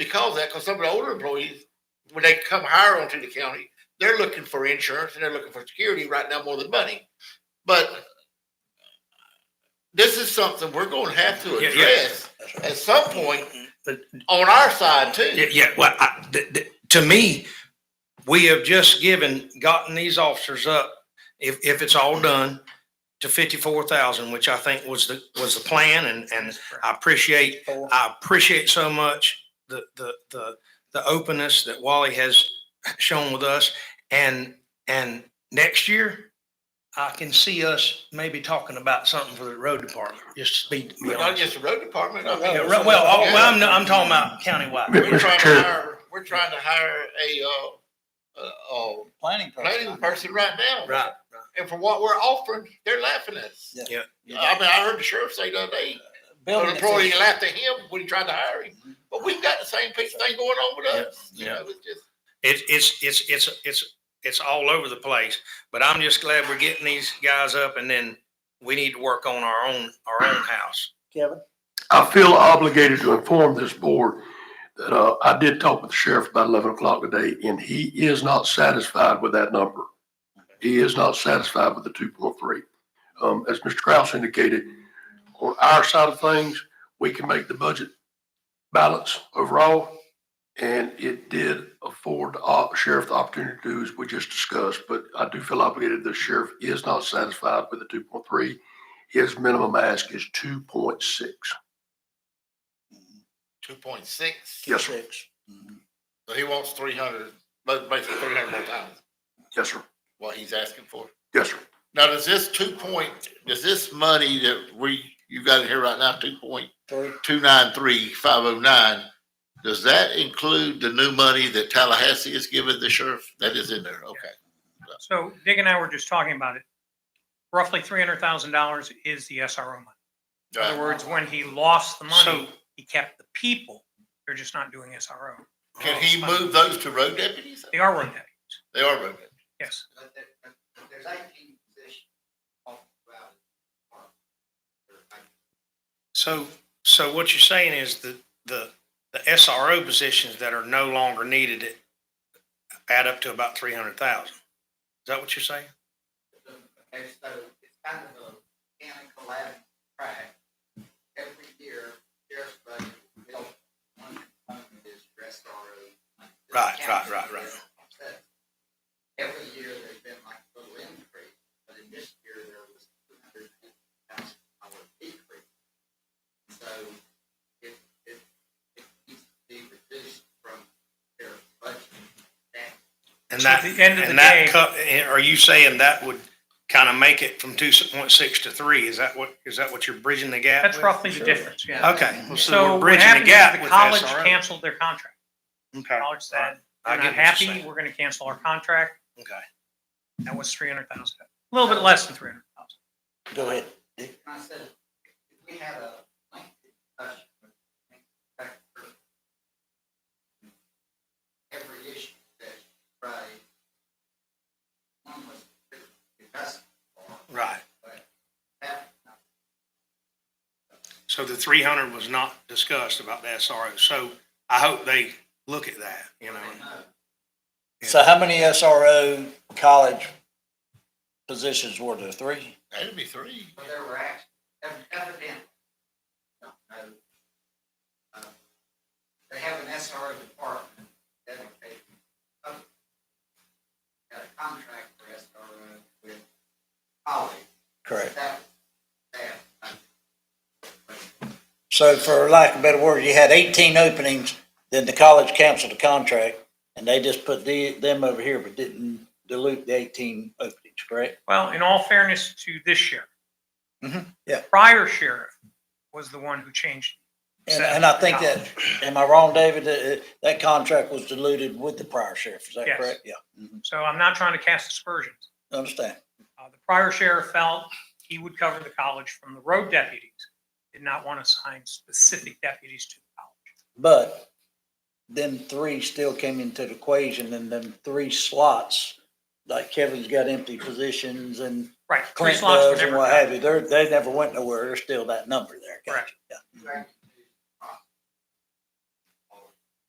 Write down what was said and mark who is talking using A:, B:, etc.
A: because that, because some of the older employees, when they come higher onto the county, they're looking for insurance and they're looking for security right now more than money. But this is something we're gonna have to
B: Yeah, yeah.
A: address at some point
B: But-
A: on our side too.
B: Yeah, yeah, well, I, th- th- to me, we have just given, gotten these officers up, if, if it's all done, to fifty-four thousand, which I think was the, was the plan, and, and I appreciate, I appreciate so much the, the, the, the openness that Wally has shown with us, and, and next year, I can see us maybe talking about something for the road department, just to be, be
A: But Not
B: honest.
A: just the road department. I mean,
B: Yeah, right, Well, all- well, I'm, I'm talking about countywide.
A: We're trying to hire, we're trying to hire a, uh, uh, uh,
C: Planning. person.
A: planning person right now.
B: Right,
A: And for what we're offering, they're laughing at us.
C: Yeah.
B: Yeah.
A: I mean, I heard the sheriff say the other day, an
C: Building
A: uh, employee
C: official.
A: laughed at him when he tried to hire him. But we've got the same piece of thing going on with us. You
B: Yeah.
A: know, it's just,
B: It's it's it's it's it's it's all over the place. But I'm just glad we're getting these guys up, and then we need to work on our own our own house.
C: Kevin,
D: I feel obligated to inform this board that, uh, I did talk with the sheriff about eleven o'clock today and he is not satisfied with that number. He is not satisfied with the two point three. Um, as Mr. Kraus indicated, on our side of things, we can make the budget balance overall. And it did afford the op- sheriff the opportunity to do as we just discussed, but I do feel obligated. The sheriff is not satisfied with the two point three. His minimum ask is two point six.
A: two point six.
D: Yes, sir.
C: six. Mhm.
A: So he wants three hundred, but basically three hundred more times
D: Yes, sir.
A: what he's asking for.
D: Yes, sir.
A: Now, does this two point, does this money that we, you got in here right now, two point
C: Three.
A: two nine three five oh nine, does that include the new money that Tallahassee is giving the sheriff? That is in there, okay.
E: So Dick and I were just talking about it. Roughly three hundred thousand dollars is the SRO money. In other words, when he lost the money, he kept the people. They're just not doing SRO.
A: Can he move those to road deputies?
E: They are road deputies,
A: They are road deputies.
E: yes.
F: But there, but there's eighteen positions all throughout the department. There are 18.
B: So so what you're saying is that the the SRO positions that are no longer needed add up to about three hundred thousand. Is that what you're saying?
F: Okay, so it's kind of a mechanical collapse track. Every year, sheriff's budget will, one component is your SRO. money.
B: Right, right, right, right.
F: Every year, there's been like a little increase, but in this year, there was two hundred and fifty thousand dollar decrease. So it, it, it needs to be reduced from sheriff's budget. That
B: And
E: So at
B: that
E: the end of the
B: and that
E: day-
B: cut- eh, are you saying that would kind of make it from two point six to three? Is that what is that what you're bridging the gap?
E: That's
B: with?
E: roughly the difference, yeah.
B: Okay, well, so
E: So
B: we're
E: what
B: bridging the
E: happened is
B: gap
E: the
B: with
E: college
B: SRO.
E: canceled their contract.
B: Okay,
E: College said,
B: I get
E: we're not
B: what you're
E: happy,
B: saying.
E: we're gonna cancel our contract.
B: okay.
E: That was three hundred thousand, a little bit less than three hundred thousand.
C: Go ahead.
F: I said, if we had a lengthy discussion with the manufacturer, every issue that you raised, one was discussed,
B: Right.
F: that,
B: So the three hundred was not discussed about the SRO, so I hope they look at that, you know.
C: So how many SRO college positions were there? Three?
A: That'd be three.
F: but there were actually, evidently, don't know. uh, They have an SRO department dedicated, uh, got a contract for SRO with colleagues,
C: Correct.
F: that, that, uh,
C: So for lack of a better word, you had eighteen openings, then the college canceled the contract and they just put the, them over here, but didn't dilute the eighteen openings, correct?
E: Well, in all fairness to this sheriff.
C: Mhm, yeah.
E: Prior sheriff was the one who changed
C: And, and I think that, am I wrong, David? That, uh, that contract was diluted with the prior sheriff, is that
E: Yes.
C: correct? Yeah,
E: So I'm not trying to cast aspersions.
C: understand.
E: Uh, the prior sheriff felt he would cover the college from the road deputies, did not want to assign specific deputies to the college.
C: But them three still came into the equation and then three slots, like Kevin's got empty positions and
E: Right, three
C: Clint
E: slots were
C: does and
E: never
C: what have
E: filled.
C: you. They're, they never went nowhere. There's still that number there. Gotcha.
E: Correct.
C: Yeah.
F: Right.